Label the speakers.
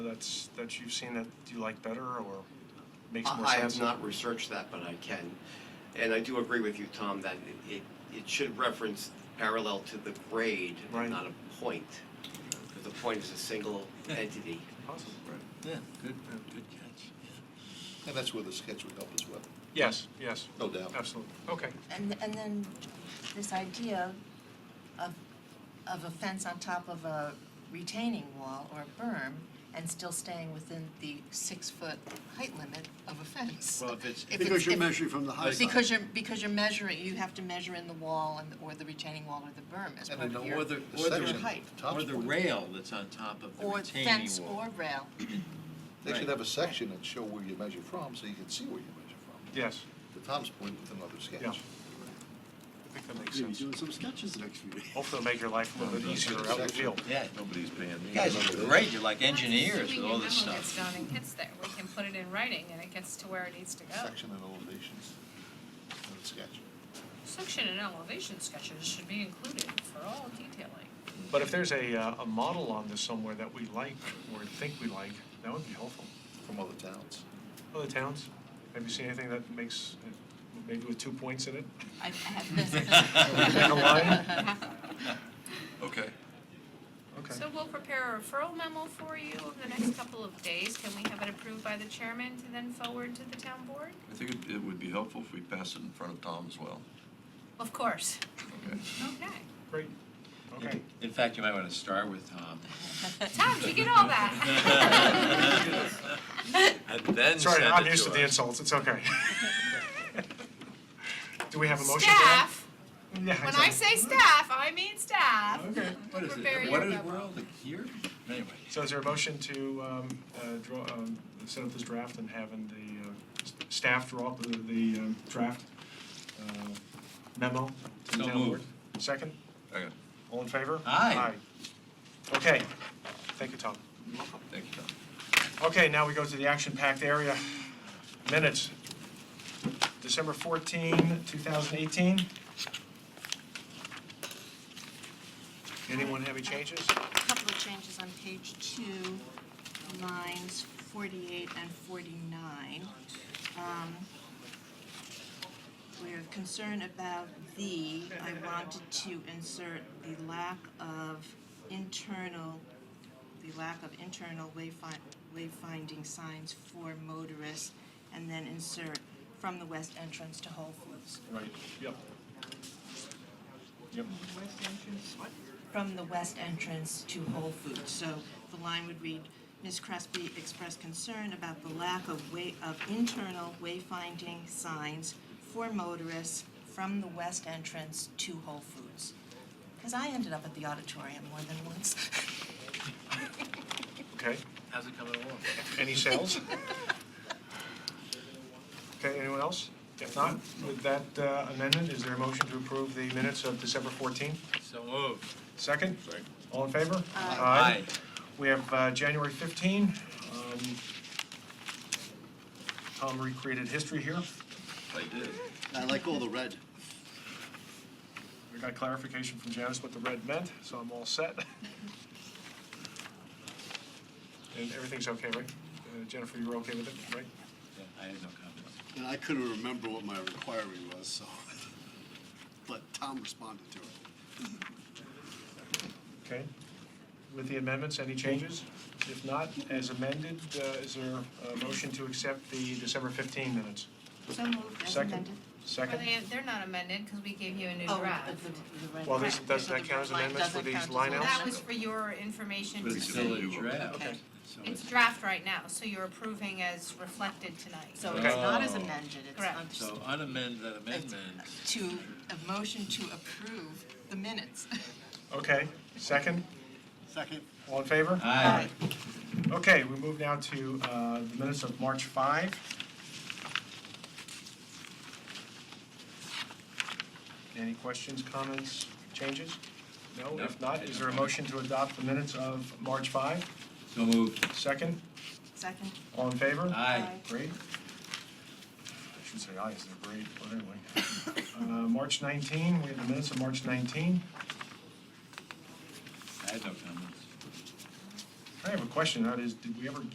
Speaker 1: that's, that you've seen that you like better or makes more
Speaker 2: I I
Speaker 1: sense?
Speaker 2: have not researched that, but I can. And I do agree with you, Tom, that it- it, it should reference parallel to the grade,
Speaker 1: Right.
Speaker 2: not a point. Because the point is a single entity.
Speaker 1: Awesome, right.
Speaker 3: Yeah, good, good catch. yeah. And that's where the sketch would help as well,
Speaker 1: Yes, yes,
Speaker 3: no doubt.
Speaker 1: absolutely, okay.
Speaker 4: And, and then this idea of, of a fence on top of a retaining wall or a berm and still staying within the six-foot height limit of a fence.
Speaker 5: Well, if it's,
Speaker 4: If
Speaker 6: Because
Speaker 4: it's-
Speaker 6: you're
Speaker 4: if-
Speaker 6: measuring from the high side.
Speaker 4: Because you're, because you're measuring, you have to measure in the wall and, or the retaining wall or the berm as
Speaker 3: And
Speaker 4: part
Speaker 3: I know
Speaker 4: of your,
Speaker 5: or the,
Speaker 3: The
Speaker 5: or
Speaker 3: section,
Speaker 5: the,
Speaker 4: height.
Speaker 3: Tom's
Speaker 5: or the
Speaker 3: point.
Speaker 5: rail that's on top of the
Speaker 4: or
Speaker 5: retaining
Speaker 4: fence
Speaker 5: wall.
Speaker 4: or rail.
Speaker 3: They should
Speaker 5: Right.
Speaker 3: have a section and show where you measure from, so you can see where you measure from.
Speaker 1: Yes,
Speaker 3: To Tom's point with another sketch.
Speaker 1: Yeah. I think that makes
Speaker 6: You're
Speaker 1: sense.
Speaker 6: doing some sketches the next few days.
Speaker 1: Hopefully it'll make your life a little bit easier out in the field.
Speaker 5: Yeah,
Speaker 3: Nobody's paying
Speaker 5: you guys are great, you're like engineers with all this
Speaker 7: Assuming your memo gets
Speaker 5: stuff.
Speaker 7: done and gets there, we can put it in writing and it gets to where it needs to go.
Speaker 3: Section and elevations, and a sketch.
Speaker 7: Section and elevation sketches should be included for all detailing.
Speaker 1: But if there's a, uh, a model on this somewhere that we like or think we like, that would be helpful.
Speaker 3: from other towns.
Speaker 1: Other towns, have you seen anything that makes, uh, maybe with two points in it?
Speaker 4: I, I have,
Speaker 1: And a line?
Speaker 8: Okay.
Speaker 1: Okay.
Speaker 7: So we'll prepare a referral memo for you over the next couple of days. Can we have it approved by the chairman to then forward to the town board?
Speaker 8: I think it- it would be helpful if we passed it in front of Tom as well.
Speaker 7: Of course.
Speaker 8: Okay.
Speaker 7: Okay.
Speaker 1: Great, okay.
Speaker 5: In fact, you might wanna start with Tom.
Speaker 7: Tom, did you get all that?
Speaker 5: And then
Speaker 1: Sorry,
Speaker 5: send
Speaker 1: I'm
Speaker 5: it
Speaker 1: used to the
Speaker 5: us.
Speaker 1: insults, it's okay. Do we have a motion? for that?
Speaker 7: Staff,
Speaker 1: Yeah,
Speaker 7: when I
Speaker 1: exactly.
Speaker 7: say staff, I mean staff.
Speaker 1: Okay.
Speaker 5: What is
Speaker 7: Prepare
Speaker 5: it,
Speaker 7: your
Speaker 5: what is,
Speaker 7: memo.
Speaker 5: we're all here? Anyway,
Speaker 1: So is there a motion to um, uh, draw, um, set up this draft and having the uh, s- staff draw up the- the um, draft uh, memo? to the
Speaker 5: So
Speaker 1: town board? Second?
Speaker 8: Okay,
Speaker 1: All in favor?
Speaker 5: Aye.
Speaker 1: Aye. Okay. Thank you, Tom.
Speaker 8: thank you, Tom.
Speaker 1: Okay, now we go to the action-packed area. Minutes. December 14, 2018. Anyone have any changes?
Speaker 4: a couple of changes on page two, lines forty-eight and forty-nine. Um, We're concerned about the, I wanted to insert the lack of internal, the lack of internal wayfind, wayfinding signs for motorists, and then insert from the west entrance to Whole Foods.
Speaker 1: Right, yep. Yep.
Speaker 4: from the west entrance to Whole Foods. So the line would read, Ms. Crespi expressed concern about the lack of way, of internal wayfinding signs for motorists from the west entrance to Whole Foods. Because I ended up at the auditorium more than once.
Speaker 1: Okay.
Speaker 5: how's it coming along?
Speaker 1: Any sales? Okay, anyone else? If not, with that uh, amendment, is there a motion to approve the minutes of December 14?
Speaker 5: So oh, moved.
Speaker 1: Second? All in favor?
Speaker 5: Aye.
Speaker 1: We have uh, January 15. Um, Tom recreated history here.
Speaker 8: I did.
Speaker 6: I like all the red.
Speaker 1: We got clarification from Janice what the red meant, so I'm all set. And everything's okay, right? Uh, Jennifer, you were okay with it, right?
Speaker 5: Yeah, I had no comments.
Speaker 6: And I couldn't remember what my requirement was, so, but Tom responded to it.
Speaker 1: Okay. With the amendments, any changes? If not, as amended, uh, is there a motion to accept the December 15 minutes?
Speaker 4: So moved as
Speaker 1: Second.
Speaker 4: amended.
Speaker 7: Well,
Speaker 1: Second?
Speaker 7: they, they're not amended because we gave you a new
Speaker 4: Oh,
Speaker 7: draft.
Speaker 4: the- the- the red
Speaker 1: Well, this-
Speaker 4: line.
Speaker 1: does
Speaker 4: So
Speaker 1: that
Speaker 4: the
Speaker 1: count
Speaker 4: red
Speaker 1: as
Speaker 4: line
Speaker 1: amendments for
Speaker 4: doesn't
Speaker 1: these
Speaker 4: count as
Speaker 1: line
Speaker 4: an
Speaker 1: outs?
Speaker 7: That
Speaker 4: amendment.
Speaker 7: was for your information
Speaker 8: But
Speaker 7: to
Speaker 8: it's
Speaker 7: see.
Speaker 5: Still a
Speaker 8: Okay.
Speaker 5: draft.
Speaker 4: Okay,
Speaker 5: So
Speaker 7: It's draft right now, so you're approving as reflected tonight.
Speaker 4: so
Speaker 1: Okay.
Speaker 4: it's not as
Speaker 5: Oh.
Speaker 4: amended, it's
Speaker 7: Correct.
Speaker 4: under-
Speaker 5: So unamend that amendment.
Speaker 4: to, a motion to approve the minutes.
Speaker 1: Okay. Second?
Speaker 6: Second,
Speaker 1: All in favor?
Speaker 5: Aye.
Speaker 1: Okay, we move now to uh, the minutes of March 5. Any questions, comments, changes? No?
Speaker 5: No.
Speaker 1: If not, is there a motion to adopt the minutes of March 5?
Speaker 5: So moved.
Speaker 1: Second?
Speaker 4: Second?
Speaker 1: All in favor?
Speaker 5: Aye.
Speaker 1: Great. I should say aye, is there grade, but anyway. Uh, March 19, we have the minutes of March 19.
Speaker 5: I had no comments.
Speaker 1: I have a question, that is, did we ever